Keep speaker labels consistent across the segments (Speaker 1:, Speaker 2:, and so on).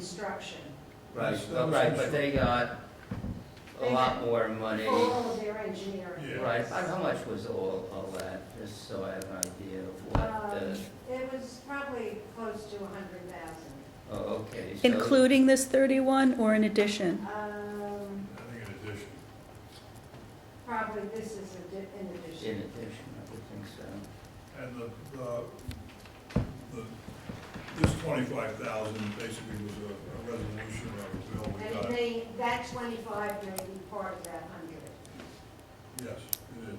Speaker 1: construction.
Speaker 2: Right,
Speaker 3: That's- that was
Speaker 2: right, but
Speaker 3: constru-
Speaker 2: they got a
Speaker 1: They
Speaker 2: lot more money.
Speaker 1: All of their engineering. Um,
Speaker 3: Yeah.
Speaker 2: Right, how how much was all, all that, just so I have an idea of what
Speaker 1: Um,
Speaker 2: the,
Speaker 1: It was probably close to a hundred thousand.
Speaker 2: oh, okay. so-
Speaker 4: Including this 31 or in addition?
Speaker 1: Um,
Speaker 3: I think in addition,
Speaker 1: probably this is a di- in
Speaker 2: In
Speaker 1: addition.
Speaker 2: addition, I would think so.
Speaker 3: and the, the, the, this twenty-five thousand basically was a, a resolution of a bill we
Speaker 1: And
Speaker 3: got.
Speaker 1: they, that twenty-five may be part of that hundred.
Speaker 3: Yes, it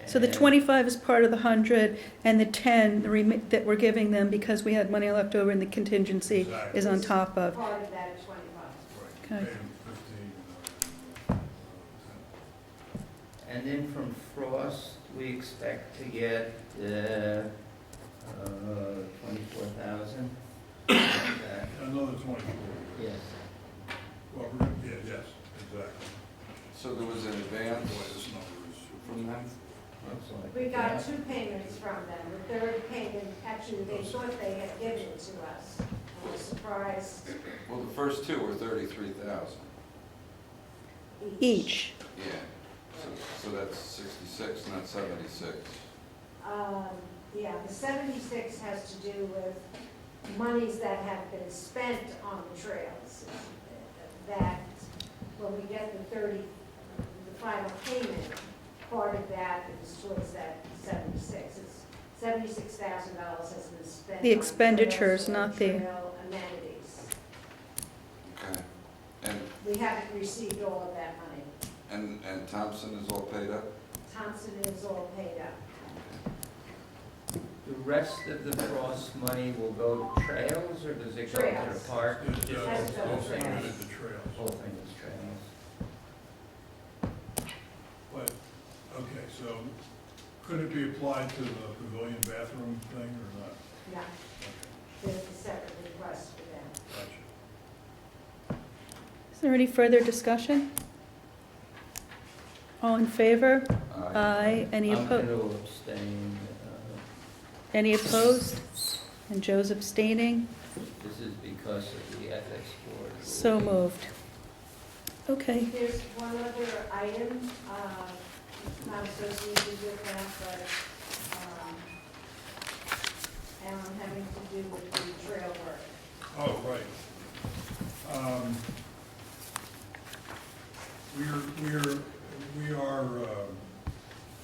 Speaker 3: is.
Speaker 4: So the
Speaker 2: And-
Speaker 4: 25 is part of the 100, and the 10 the remi- that we're giving them because we had money left over in the contingency
Speaker 3: Exactly.
Speaker 4: is on top of.
Speaker 1: Part of that twenty-five.
Speaker 3: Right.
Speaker 4: Okay.
Speaker 3: Paid him fifteen, uh, uh,
Speaker 2: And then from Frost, we expect to get, uh, uh, twenty-four thousand?
Speaker 3: ten. Another twenty-four.
Speaker 2: Yes.
Speaker 3: Well, we're gonna- yeah, yes, exactly.
Speaker 5: So there was an
Speaker 3: Boy,
Speaker 5: advance
Speaker 3: this number is.
Speaker 5: from them?
Speaker 2: looks like
Speaker 1: We
Speaker 2: it,
Speaker 1: got
Speaker 2: yeah.
Speaker 1: two payments from them. The third payment, actually, they thought they had given it to us. I was surprised
Speaker 5: Well, the first two were thirty-three thousand.
Speaker 1: each.
Speaker 4: Each.
Speaker 5: Yeah. So, so that's sixty-six, not seventy-six.
Speaker 1: Um, Yeah, the 76 has to do with monies that have been spent on the trails. That, when we get the 30, the final payment, part of that is towards that 76. It's $76,000 has been spent.
Speaker 4: The
Speaker 1: on
Speaker 4: expenditures,
Speaker 1: trails and
Speaker 4: not the-
Speaker 1: Trail amenities.
Speaker 5: Okay. And,
Speaker 1: We haven't received all of that money.
Speaker 5: and, and Thompson is all paid up?
Speaker 1: Thompson is all paid up.
Speaker 2: The rest of the Frost money will go to trails, or does it go to the
Speaker 1: Trails.
Speaker 2: park?
Speaker 3: It's,
Speaker 2: Just
Speaker 3: uh,
Speaker 1: That's
Speaker 2: the whole
Speaker 1: the
Speaker 3: it's
Speaker 2: thing
Speaker 3: included
Speaker 2: is-
Speaker 3: the
Speaker 2: the Whole
Speaker 3: trails.
Speaker 2: thing is trails.
Speaker 3: But, okay, so could it be applied to the pavilion bathroom thing or not?
Speaker 1: No,
Speaker 3: Okay,
Speaker 1: there's a separate request for them.
Speaker 3: Gotcha.
Speaker 4: Is there any further discussion? All in favor? Aye. Any
Speaker 2: I'm going
Speaker 4: opposed?
Speaker 2: to abstain. uh,
Speaker 4: Any opposed? And Joe's abstaining?
Speaker 2: This is because of the ethics board.
Speaker 4: So
Speaker 2: ruling.
Speaker 4: moved. Okay.
Speaker 1: There's one other item, uh, it's not associated with that, but, um, and having to do with the trail work.
Speaker 3: Oh, right. Um, We are, we are, we are um,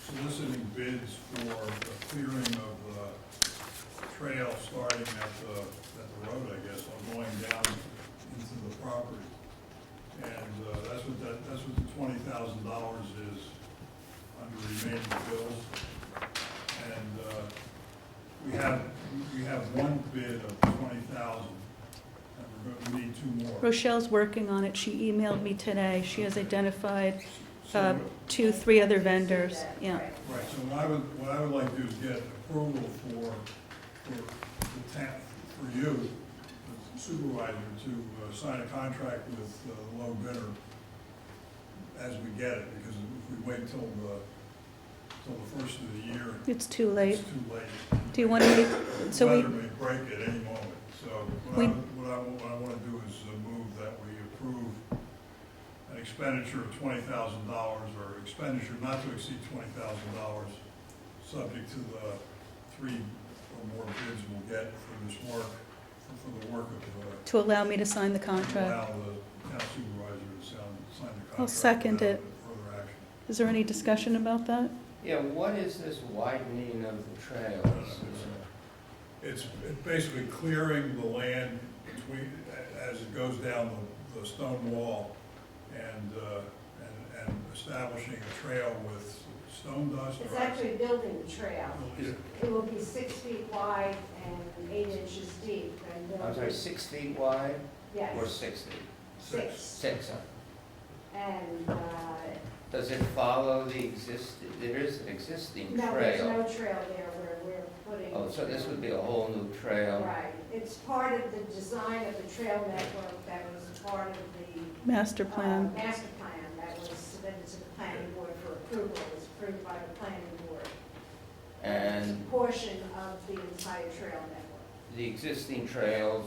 Speaker 3: soliciting bids for the clearing of the trail starting at the, at the road, I guess, or going down into the property. And uh, that's what that, that's what the twenty thousand dollars is under remaining bills. And uh, we have, we have one bid of twenty thousand, and we're gonna need two more.
Speaker 4: Rochelle's working on it. She emailed me today. She has identified
Speaker 3: So,
Speaker 4: uh, two, three other vendors.
Speaker 1: Right.
Speaker 4: Yeah.
Speaker 3: Right, so what I would, what I would like to do is get approval for, for the town, for you, the supervisor, to uh, sign a contract with uh, the low bidder as we get it, because if we wait till the, till the first of the year,
Speaker 4: It's too late.
Speaker 3: it's too late.
Speaker 4: Do you want to, so we-
Speaker 3: Weather may break at any moment, so what
Speaker 4: We-
Speaker 3: I, what I, what I wanna do is uh, move that we approve an expenditure of twenty thousand dollars, or expenditure not to exceed twenty thousand dollars, subject to the three or more bids we'll get for this work, for- for the work of, uh,
Speaker 4: to allow me to sign the contract?
Speaker 3: allow the town supervisor to sign, sign the contract.
Speaker 4: I'll second
Speaker 3: without
Speaker 4: it.
Speaker 3: Further action.
Speaker 4: Is there any discussion about that?
Speaker 2: Yeah, what is this widening of the
Speaker 3: No, no,
Speaker 2: trails?
Speaker 3: it's- It's basically clearing the land between, as it goes down the, the stone wall and, uh, and, and establishing a trail with stone dust. or-
Speaker 1: It's actually building a trail.
Speaker 3: Yeah,
Speaker 1: It will be six feet wide and eight inches deep, and
Speaker 2: I'm
Speaker 1: there'll
Speaker 2: sorry,
Speaker 1: be,
Speaker 2: six feet wide or
Speaker 1: yes,
Speaker 2: six feet?
Speaker 1: six.
Speaker 2: Six. huh?
Speaker 1: And, uh,
Speaker 2: Does it follow the existing, there is an existing
Speaker 1: no, there's no
Speaker 2: trail?
Speaker 1: trail there where we're putting.
Speaker 2: Oh, so this would be a whole new trail?
Speaker 1: Right, it's part of the design of the trail network that was part of the
Speaker 4: Master
Speaker 1: uh,
Speaker 4: plan.
Speaker 1: Master plan that was submitted to the planning board for approval, It was approved by the planning board. It's
Speaker 2: And
Speaker 1: a Portion of the entire trail network.
Speaker 2: the existing trails